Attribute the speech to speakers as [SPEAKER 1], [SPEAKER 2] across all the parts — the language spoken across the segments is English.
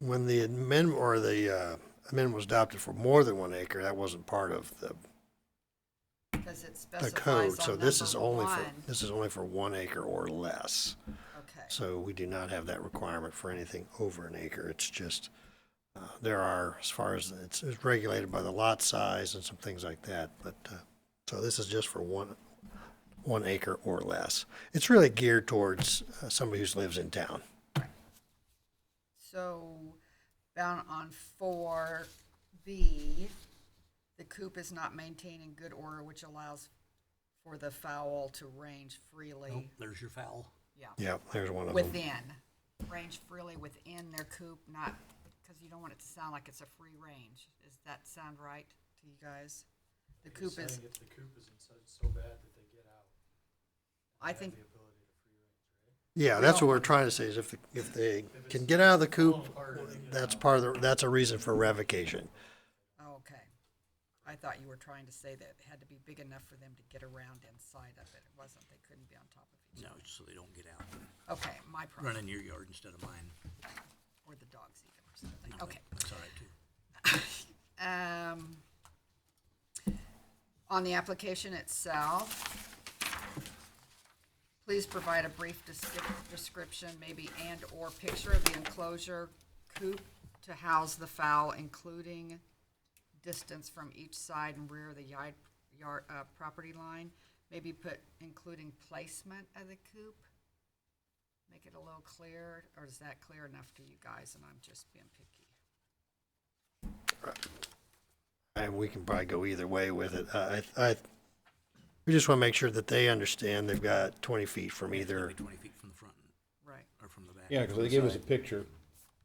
[SPEAKER 1] when the amendment or the uh, amendment was adopted for more than one acre, that wasn't part of the,
[SPEAKER 2] Because it
[SPEAKER 1] the
[SPEAKER 2] specifies
[SPEAKER 1] code. So
[SPEAKER 2] on
[SPEAKER 1] this is
[SPEAKER 2] number
[SPEAKER 1] only for,
[SPEAKER 2] one.
[SPEAKER 1] this is only for one acre or less.
[SPEAKER 2] Okay,
[SPEAKER 1] So we do not have that requirement for anything over an acre. It's just, uh, there are, as far as, it's it's regulated by the lot size and some things like that. But, uh, so this is just for one, one acre or less. It's really geared towards uh, somebody who lives in town.
[SPEAKER 2] so down on four B, the coop is not maintained in good order, which allows for the fowl to range
[SPEAKER 3] Oh,
[SPEAKER 2] freely,
[SPEAKER 3] there's your foul.
[SPEAKER 2] yeah,
[SPEAKER 1] Yep, there's one of them.
[SPEAKER 2] within. Range freely within their coop, not, because you don't want it to sound like it's a free range. Does that sound right to you guys? The coop is,
[SPEAKER 4] If the coop is in such, so bad that they get out.
[SPEAKER 2] I think,
[SPEAKER 1] Yeah, that's what we're trying to say is if, the- if they can get out of the coop, that's part of the, that's a reason for revocation.
[SPEAKER 2] oh, okay. I thought you were trying to say that it had to be big enough for them to get around inside of it. It wasn't, they couldn't be on top of each
[SPEAKER 3] No, so they don't get out.
[SPEAKER 2] other. Okay, my
[SPEAKER 3] Run
[SPEAKER 2] problem,
[SPEAKER 3] in your yard instead of mine.
[SPEAKER 2] or the dogs even or something, okay.
[SPEAKER 3] That's all right too.
[SPEAKER 2] Um, On the application itself, please provide a brief descrip- description, maybe and/or picture of the enclosure coop to house the fowl, including distance from each side and rear of the yard, yard, uh, property line. Maybe put including placement of the coop. Make it a little clearer, or is that clear enough to you guys and I'm just being picky?
[SPEAKER 1] And we can probably go either way with it. I, I, I- we just want to make sure that they understand they've got twenty feet from either,
[SPEAKER 3] Maybe Twenty feet from the front
[SPEAKER 2] Right.
[SPEAKER 3] or from the back.
[SPEAKER 5] Yeah, because they gave us a picture,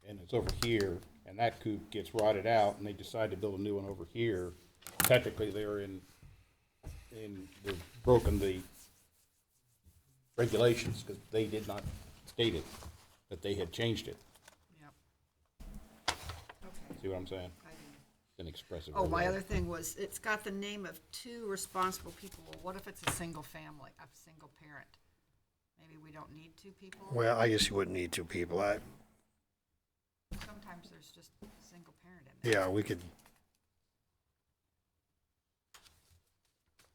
[SPEAKER 5] and it's over here, and that coop gets rotted out, and they decide to build a new one over here. Technically, they're in, in, they've broken the regulations, because they did not state it, that they had changed it.
[SPEAKER 2] Yep.
[SPEAKER 5] See what I'm saying?
[SPEAKER 2] I do.
[SPEAKER 5] It's Inexpressive.
[SPEAKER 2] Oh, my
[SPEAKER 5] word.
[SPEAKER 2] other thing was, it's got the name of two responsible people. Well, what if it's a single family, a single parent? Maybe we don't need two people?
[SPEAKER 1] well, I guess you wouldn't need two people. I,
[SPEAKER 2] Sometimes there's just a single parent in there.
[SPEAKER 1] yeah, we could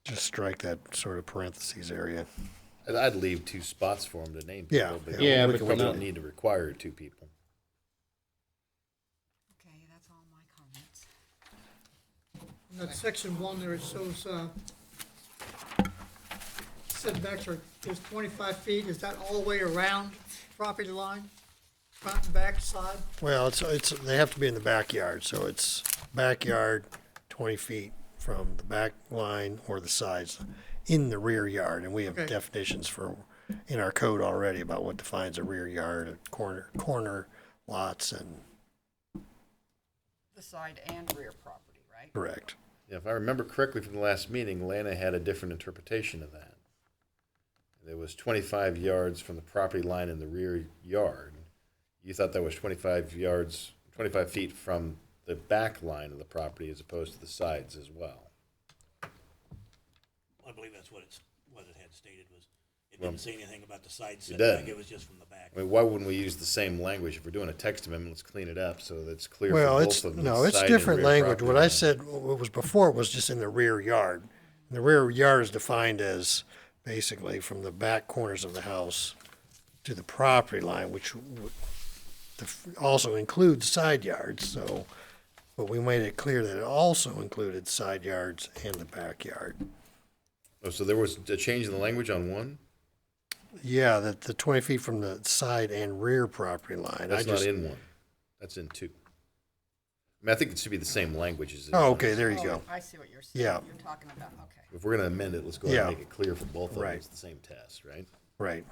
[SPEAKER 1] just strike that sort of parentheses area.
[SPEAKER 4] I'd, I'd leave two spots for them to name
[SPEAKER 1] Yeah,
[SPEAKER 4] people, but
[SPEAKER 1] yeah.
[SPEAKER 5] Yeah,
[SPEAKER 4] we
[SPEAKER 5] but
[SPEAKER 4] can- we
[SPEAKER 5] come
[SPEAKER 4] don't
[SPEAKER 5] on.
[SPEAKER 4] need to require two people.
[SPEAKER 2] Okay, that's all my comments.
[SPEAKER 6] At section one, there it shows, uh, setbacks are, is twenty-five feet, is that all the way around property line? Front, and back, side?
[SPEAKER 1] Well, it's, it's, they have to be in the backyard, so it's backyard, twenty feet from the back line or the sides in the rear yard, and we have
[SPEAKER 6] Okay.
[SPEAKER 1] definitions for, in our code already about what defines a rear yard, a corner, corner lots and,
[SPEAKER 2] The side and rear property, right?
[SPEAKER 1] correct.
[SPEAKER 4] Yeah, If I remember correctly from the last meeting, Lana had a different interpretation of that. It was twenty-five yards from the property line in the rear yard. You thought that was twenty-five yards, twenty-five feet from the back line of the property as opposed to the sides as well.
[SPEAKER 3] I believe that's what it's, what it had stated was, it didn't say anything about the side
[SPEAKER 4] doesn't.
[SPEAKER 3] setback, it was just from the back.
[SPEAKER 4] I mean, why wouldn't we use the same language if we're doing a text amendment? Let's clean it up so that's clear for
[SPEAKER 1] Well,
[SPEAKER 4] both
[SPEAKER 1] it's,
[SPEAKER 4] of them.
[SPEAKER 1] no, it's
[SPEAKER 4] side and
[SPEAKER 1] different
[SPEAKER 4] rear
[SPEAKER 1] language. What
[SPEAKER 4] property
[SPEAKER 1] I
[SPEAKER 4] line.
[SPEAKER 1] said, what was before was just in the rear yard. The rear yard is defined as basically from the back corners of the house to the property line, which would- the f- also includes side yards, so, but we made it clear that it also included side yards and the backyard.
[SPEAKER 4] Oh, so there was a change in the language on one?
[SPEAKER 1] Yeah, that the twenty feet from the side and rear property line. I
[SPEAKER 4] That's not
[SPEAKER 1] just,
[SPEAKER 4] in one. That's in two. I mean, I think it should be the same language as. it is.
[SPEAKER 1] oh, okay, there you go.
[SPEAKER 2] I see what you're saying.
[SPEAKER 1] Yeah.
[SPEAKER 2] You're talking about, okay.
[SPEAKER 4] If we're gonna amend it, let's go ahead and
[SPEAKER 1] Yeah.
[SPEAKER 4] make it clear for both of them.
[SPEAKER 1] Right.
[SPEAKER 4] It's the same test, right?
[SPEAKER 1] Right.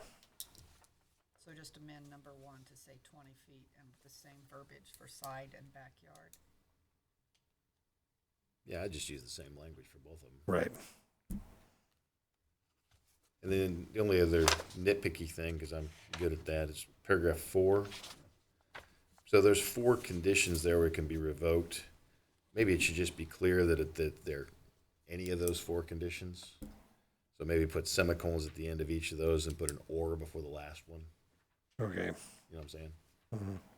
[SPEAKER 2] So just amend number one to say twenty feet and the same verbiage for side and backyard.
[SPEAKER 4] Yeah, I just use the same language for both of them.
[SPEAKER 1] Right.
[SPEAKER 4] And then the only other nitpicky thing, because I'm good at that, is paragraph four. So there's four conditions there where it can be revoked. Maybe it should just be clear that it, that there, any of those four conditions. So maybe put semicolons at the end of each of those and put an or before the last one.
[SPEAKER 1] Okay.
[SPEAKER 4] You know what I'm saying?
[SPEAKER 1] Mhm.